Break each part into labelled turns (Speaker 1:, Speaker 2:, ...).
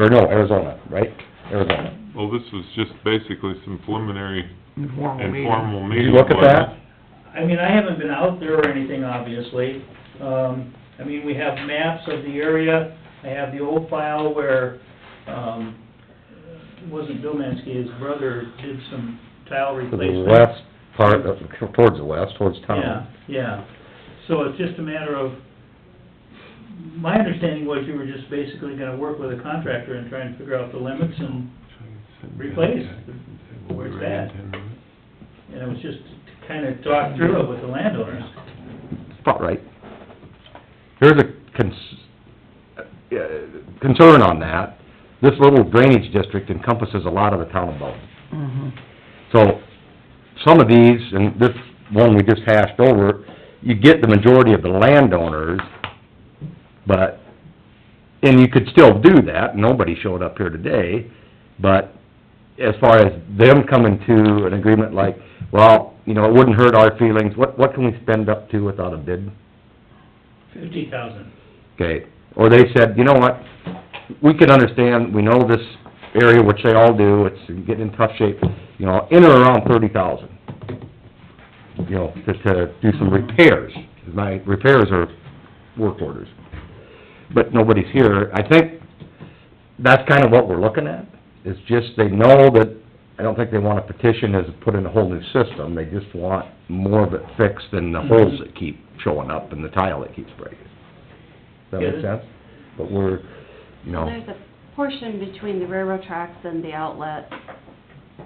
Speaker 1: or no, Arizona, right? Arizona.
Speaker 2: Well, this was just basically some preliminary
Speaker 3: Informal meeting.
Speaker 2: informal
Speaker 1: Did you
Speaker 2: meeting.
Speaker 1: look at that?
Speaker 4: I mean, I haven't been out there or anything, obviously. Um, I mean, we have maps of the area. I have the old file where, um, it wasn't Bill Mansky, his brother did some tile
Speaker 1: To the
Speaker 4: replacement.
Speaker 1: west part, of- towards the west, towards
Speaker 4: Yeah,
Speaker 1: town.
Speaker 4: yeah. So it's just a matter of, my understanding was you were just basically gonna work with a contractor and try and figure out the limits and, Replace. Where's that? and it was just to kinda talk through it with the landowners.
Speaker 1: About right. Here's a cons- uh, concern on that. This little drainage district encompasses a lot of the town of Bowden.
Speaker 3: Mhm.
Speaker 1: So, some of these, and this one we just hashed over, you get the majority of the landowners, but, and you could still do that, nobody showed up here today, but as far as them coming to an agreement like, well, you know, it wouldn't hurt our feelings, what, what can we spend up to without a bid?
Speaker 4: Fifty thousand.
Speaker 1: Okay, or they said, you know what, we can understand, we know this area, which they all do, it's getting in tough shape, you know, in or around thirty thousand. You know, just to do some repairs, my repairs are work orders. But nobody's here, I think that's kind of what we're looking at, is just they know that, I don't think they want a petition as put in a whole new system, they just want more of it fixed than the holes that keep showing up and the tile that keeps breaking. Does that make
Speaker 4: Yeah.
Speaker 1: sense? But we're, you know,
Speaker 5: Well, There's a portion between the railroad tracks and the outlet,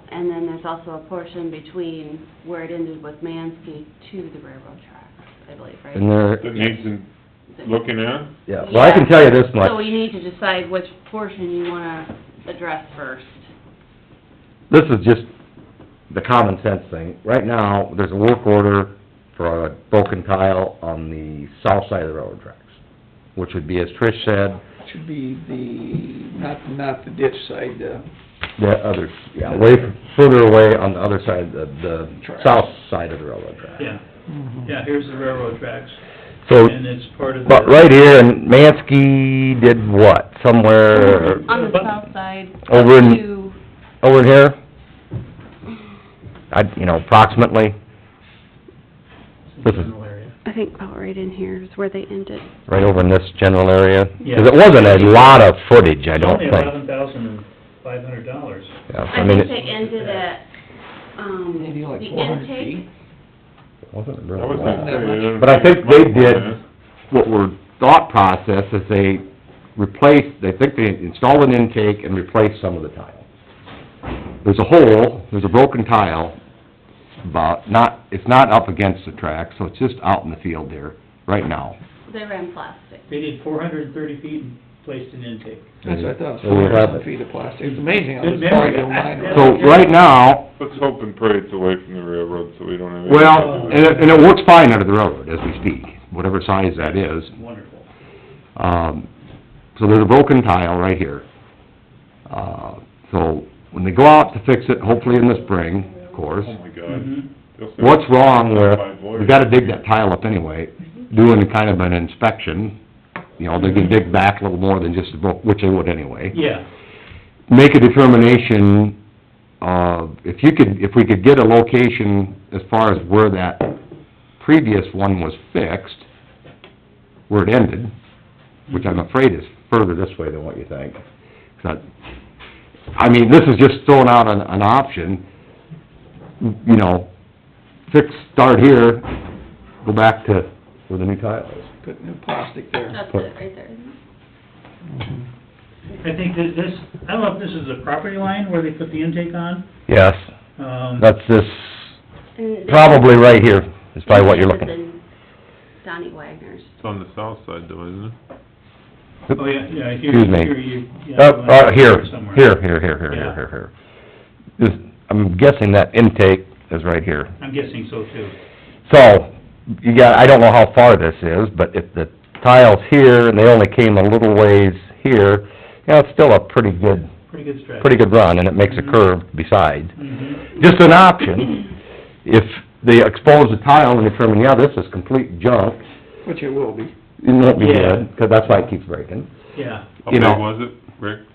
Speaker 5: and then there's also a portion between where it ended with Mansky to the railroad tracks, I believe,
Speaker 1: and
Speaker 5: right?
Speaker 1: they're,
Speaker 2: That needs in- looking at?
Speaker 1: yeah, well, I can tell you this much.
Speaker 5: So we need to decide which portion you wanna address first.
Speaker 1: this is just the common sense thing. Right now, there's a work order for a broken tile on the south side of the railroad tracks, which would be, as Trish said,
Speaker 3: Should be the, not, not the ditch side, uh, the,
Speaker 1: the other, yeah, way further away on the other side, the, the
Speaker 3: Tracks.
Speaker 1: south side of the railroad track.
Speaker 4: Yeah,
Speaker 3: Mm-hmm.
Speaker 4: yeah, here's the railroad tracks,
Speaker 1: So,
Speaker 4: and it's part of the...
Speaker 1: Oh. but right here, and Mansky did what? Somewhere
Speaker 5: On the
Speaker 4: But-
Speaker 5: south side
Speaker 1: over in,
Speaker 5: to,
Speaker 1: over in here? I, you know, approximately,
Speaker 4: It's a general area.
Speaker 5: I think about right in here is where they ended.
Speaker 1: right over in this general area?
Speaker 4: Yeah.
Speaker 1: Because it wasn't a lot of footage, I don't think.
Speaker 4: It's only eleven thousand and five hundred dollars.
Speaker 1: Yeah,
Speaker 5: I
Speaker 1: I mean,
Speaker 5: think they
Speaker 1: it
Speaker 5: ended at, um,
Speaker 3: maybe like
Speaker 5: the
Speaker 3: four hundred feet.
Speaker 5: intake.
Speaker 1: wasn't
Speaker 2: I
Speaker 1: really
Speaker 2: was
Speaker 1: long.
Speaker 2: gonna say, I don't
Speaker 1: But I think they
Speaker 2: it's
Speaker 1: did,
Speaker 2: much.
Speaker 1: what were thought process is they replaced, they think they installed an intake and replaced some of the tile. There's a hole, there's a broken tile, about, not, it's not up against the track, so it's just out in the field there, right now.
Speaker 5: They ran plastic.
Speaker 4: They did four hundred and thirty feet and placed an intake.
Speaker 3: That's what I thought, it was
Speaker 1: And we
Speaker 3: four
Speaker 1: have
Speaker 3: thousand
Speaker 1: it.
Speaker 3: feet of plastic. It's amazing how
Speaker 4: Good
Speaker 3: this part
Speaker 4: memory.
Speaker 3: of mine was.
Speaker 1: So, right now,
Speaker 2: Let's hope and pray it's away from the railroad, so we don't have... any-
Speaker 1: Well, and it, and it works fine under the railroad as we speak, whatever size that is.
Speaker 4: Wonderful.
Speaker 1: Um, so there's a broken tile right here. Uh, so when they go out to fix it, hopefully in the spring, of course,
Speaker 2: Oh, my God.
Speaker 4: Mhm.
Speaker 2: They'll say-
Speaker 1: Mm-hmm. what's wrong with, we gotta dig that tile up anyway, doing kind of an inspection, you know, they can dig back a little more than just a broke, which they would anyway
Speaker 4: Yeah,
Speaker 1: make a determination of, if you could, if we could get a location as far as where that previous one was fixed, where it ended, which I'm afraid is further this way than what you think. It's not- I mean, this is just throwing out an, an option, you know, fix, start here, go back to where the new tile is.
Speaker 3: Put new plastic there.
Speaker 5: That's it, right there. isn't it?
Speaker 3: Mm-hmm.
Speaker 4: I think that this, I don't know if this is the property line where they put the intake on,
Speaker 1: Yes,
Speaker 4: um,
Speaker 1: this,
Speaker 5: And they-
Speaker 1: right here, is
Speaker 5: Anderson, Donnie Wagner's.
Speaker 2: It's on the south side though, isn't it?
Speaker 4: oh, yeah, yeah, here,
Speaker 1: Excuse me.
Speaker 4: here you... yeah,
Speaker 1: Oh, uh, here,
Speaker 4: somewhere.
Speaker 1: here, here, here, here, here,
Speaker 4: Yeah.
Speaker 1: here, here. This, I'm guessing that intake is right here.
Speaker 4: I'm guessing so too.
Speaker 1: So, you got, I don't know how far this is, but if the tile's here and they only came a little ways here, you know, it's still a pretty good,
Speaker 4: Pretty good stretch.
Speaker 1: pretty good run and it makes a
Speaker 4: Mhm.
Speaker 1: curve besides.
Speaker 4: Mhm.
Speaker 1: Just an option, if they expose the tile and determine, yeah, this is complete junk,
Speaker 3: Which it will be.
Speaker 1: it won't be
Speaker 4: Yeah.
Speaker 1: good, 'cause that's why it keeps breaking.
Speaker 4: Yeah,
Speaker 2: How
Speaker 1: You
Speaker 2: big
Speaker 1: know.
Speaker 2: was it, Rick?